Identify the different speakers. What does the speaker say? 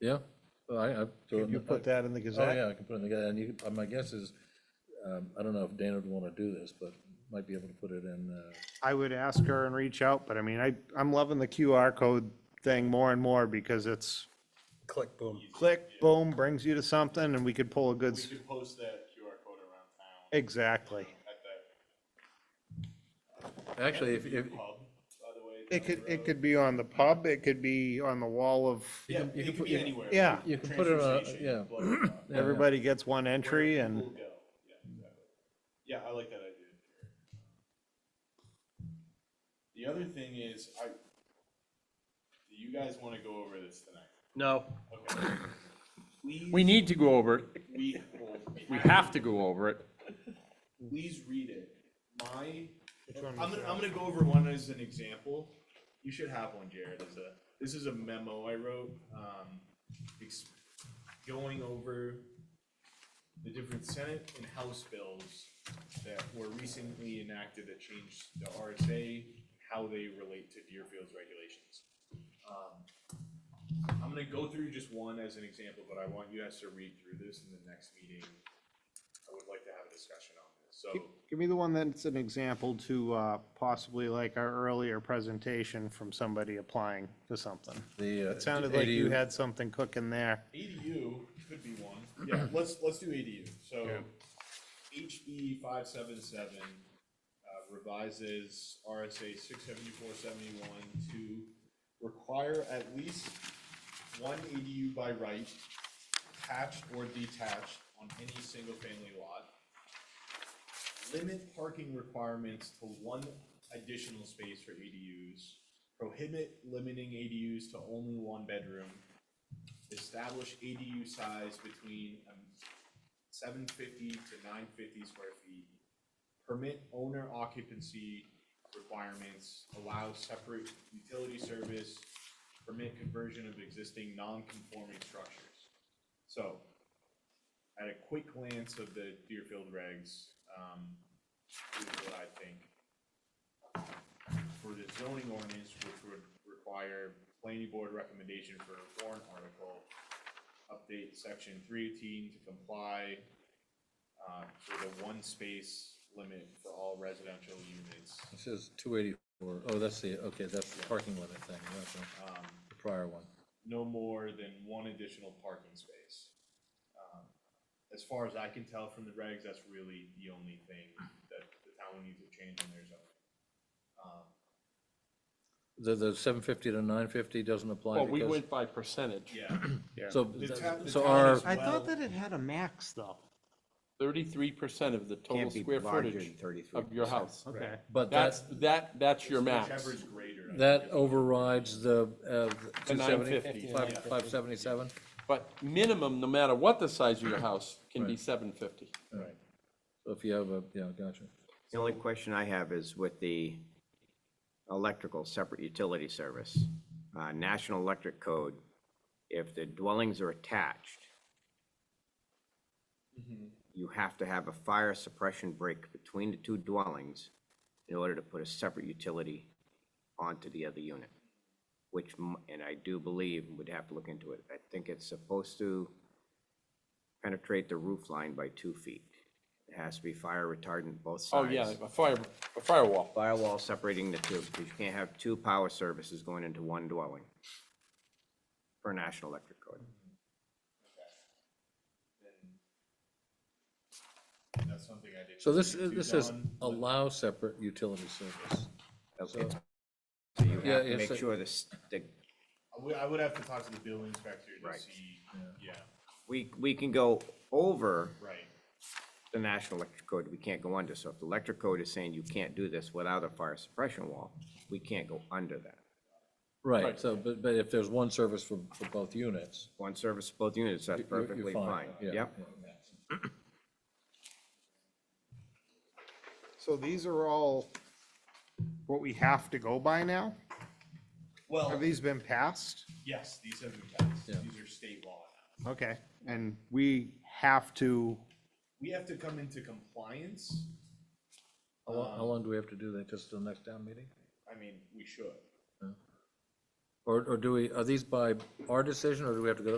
Speaker 1: Yeah, well, I, I.
Speaker 2: Could you put that in the
Speaker 1: Oh,
Speaker 2: Gazette?
Speaker 1: yeah, I can put it together, and you, could- uh, my guess is, um, I don't know if Dana would want to do this, but might be able to put it in, uh,
Speaker 2: I would ask her and reach out, but I mean, I, I'm loving the QR code thing more and more because it's
Speaker 3: Click, boom.
Speaker 2: click, boom, brings you to something and we could pull a good,
Speaker 4: We
Speaker 2: s-
Speaker 4: could post that QR code around town
Speaker 2: exactly.
Speaker 4: at that
Speaker 1: actually, if, if,
Speaker 4: pub, by the way.
Speaker 2: It could, it could be on the pub, it could be on the wall of,
Speaker 4: Yeah,
Speaker 1: you could
Speaker 4: it could
Speaker 1: put-
Speaker 4: be anywhere.
Speaker 2: yeah,
Speaker 1: you can put it
Speaker 4: Transfer
Speaker 1: on,
Speaker 4: station,
Speaker 1: yeah.
Speaker 4: blah, blah, blah.
Speaker 1: yeah, yeah.
Speaker 2: everybody gets one entry and,
Speaker 4: Cool go. Yeah, exactly. Yeah, I like that idea. The other thing is, I, do you guys want to go over this tonight?
Speaker 3: No,
Speaker 4: Okay.
Speaker 3: we
Speaker 4: Please,
Speaker 3: need to go over it.
Speaker 4: we, well,
Speaker 3: We have to go over it.
Speaker 4: please read it. My, I'm gonna, I'm gonna go over one as an example. You should have one, Jared, as a, this is a memo I wrote, um, ex- going over the different Senate and House bills that were recently enacted that changed the RSA, how they relate to Deerfield's regulations. Um, I'm gonna go through just one as an example, but I want you guys to read through this in the next meeting. I would like to have a discussion on this, so.
Speaker 2: give me the one that's an example to, uh, possibly like our earlier presentation from somebody applying to something.
Speaker 1: The, uh,
Speaker 2: It sounded like you
Speaker 1: ADU
Speaker 2: had something cooking there.
Speaker 4: ADU could be one, yeah, let's, let's do ADU, so
Speaker 2: Yeah.
Speaker 4: HB five seven seven uh, revises RSA six seventy-four seventy-one to require at least one ADU by right, attached or detached on any single-family lot. Limit parking requirements to one additional space for ADUs. Prohibit limiting ADUs to only one bedroom establish ADU size between um, seven fifty to nine fifty square feet. Permit owner occupancy requirements, allow separate utility service, permit conversion of existing non-conforming structures. So, at a quick glance of the Deerfield regs, um, here's what I think. For the zoning ordinance, which would require planning board recommendation for a warrant article, update section three eighteen to comply, uh, for the one space limit for all residential units.
Speaker 1: It says two eighty-four, oh, that's the, okay, that's the parking limit thing, that's the
Speaker 4: Um,
Speaker 1: the prior one.
Speaker 4: no more than one additional parking space. Um, As far as I can tell from the regs, that's really the only thing that the town needs to change in their zoning. Um,
Speaker 1: The, the seven fifty to nine fifty doesn't apply
Speaker 3: Well, we
Speaker 1: because,
Speaker 3: went by percentage.
Speaker 4: Yeah,
Speaker 1: so,
Speaker 4: The town- the
Speaker 1: so
Speaker 4: town
Speaker 1: our,
Speaker 4: is-
Speaker 2: I thought
Speaker 4: Well-
Speaker 2: that it had a max though.
Speaker 3: Thirty-three percent of the total
Speaker 5: Can't be
Speaker 3: square
Speaker 5: larger than
Speaker 3: footage
Speaker 5: 33%.
Speaker 3: of your house.
Speaker 2: Okay.
Speaker 1: but
Speaker 3: That's,
Speaker 1: that,
Speaker 3: that, that's your max.
Speaker 4: whichever is greater. I
Speaker 1: that
Speaker 4: think.
Speaker 1: overrides the, uh,
Speaker 3: The
Speaker 1: two seventy,
Speaker 3: 950.
Speaker 1: five, five seventy-seven?
Speaker 3: But minimum, no matter what the size of your house, can be
Speaker 1: Right.
Speaker 3: seven fifty.
Speaker 4: Right.
Speaker 1: So if you have a, yeah, gotcha.
Speaker 5: The only question I have is with the electrical separate utility service, uh, National Electric Code, if the dwellings are attached,
Speaker 3: Mm-hmm.
Speaker 5: you have to have a fire suppression break between the two dwellings in order to put a separate utility onto the other unit, which, m- and I do believe, would have to look into it. I think it's supposed to penetrate the roof line by two feet. It has to be fire retardant both
Speaker 3: Oh,
Speaker 5: sides
Speaker 3: yeah, a fire, a firewall.
Speaker 5: firewall separating the two, because you can't have two power services going into one dwelling per National Electric Code.
Speaker 4: then That's something I did.
Speaker 1: So this, this says
Speaker 4: Done, but
Speaker 1: allow separate utility service.
Speaker 5: So
Speaker 1: So,
Speaker 5: you
Speaker 1: Yeah,
Speaker 5: have to
Speaker 1: it's
Speaker 5: make
Speaker 1: a-
Speaker 5: sure this, the,
Speaker 4: I would, I would have to talk to the building inspector to
Speaker 5: Right.
Speaker 4: see, yeah,
Speaker 5: we, we can go over
Speaker 4: right,
Speaker 5: the National Electric Code, we can't go under. So if the Electric Code is saying you can't do this without a fire suppression wall, we can't go under that.
Speaker 1: right, so, but, but if there's one service for, for both units,
Speaker 5: One service, both units, that's
Speaker 1: you're- you're
Speaker 5: perfectly fine.
Speaker 1: yeah,
Speaker 5: Yep.
Speaker 1: yeah.
Speaker 2: So these are all what we have to go by now? Have
Speaker 4: well,
Speaker 2: these been passed?
Speaker 4: yes, these have been passed,
Speaker 1: Yeah.
Speaker 4: these are state law now.
Speaker 2: Okay, and we have to,
Speaker 4: we have to come into compliance.
Speaker 1: How long, how long do we have to do that, just till the next town meeting?
Speaker 4: I mean, we should.
Speaker 1: Or, or do we, are these by our decision, or do we have to go to